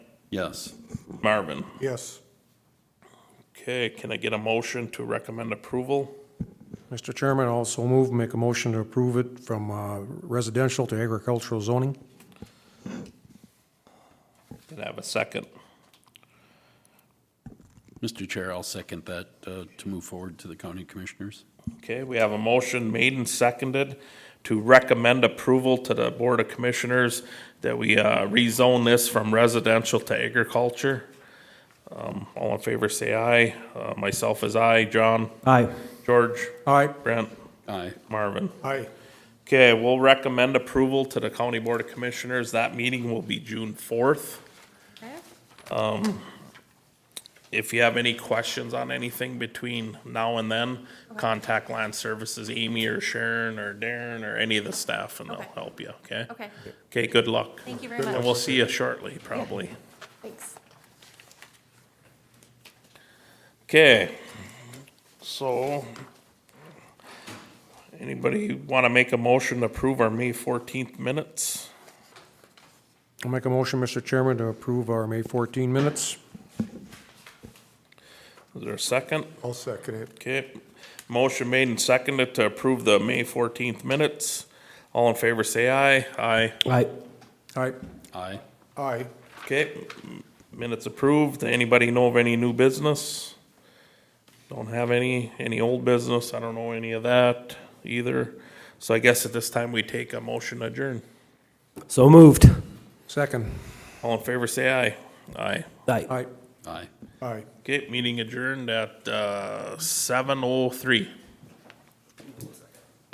Yes. Marvin. Yes. Okay, can I get a motion to recommend approval? Mr. Chairman, I also move, make a motion to approve it from uh, residential to agricultural zoning. Can I have a second? Mr. Chair, I'll second that uh, to move forward to the county commissioners. Okay, we have a motion made and seconded to recommend approval to the Board of Commissioners that we uh, rezone this from residential to agriculture. Um, All in favor, say aye. Uh, Myself is aye. John? Aye. George? Aye. Brent? Aye. Marvin? Aye. Okay, we'll recommend approval to the County Board of Commissioners. That meeting will be June fourth. If you have any questions on anything between now and then, contact Land Services, Amy or Sharon or Darren or any of the staff and they'll Okay. help you, okay? Okay, Okay, good luck. thank you very And much. we'll see you shortly, probably. Thanks. Okay, so anybody want to make a motion to approve our May fourteenth minutes? I'll make a motion, Mr. Chairman, to approve our May 14 minutes. Is there a second? I'll second it. Okay, motion made and seconded to approve the May fourteenth minutes. All in favor, say aye. Aye. Aye. Aye. Aye. Aye. Okay, m- minutes approved. Anybody know of any new business? Don't have any, any old business. I don't know any of that either. So I guess at this time we take a motion adjourn. So moved. Second. All in favor, say aye. Aye. Aye. Aye. Aye. Aye. Okay, meeting adjourned at, uh, seven oh three.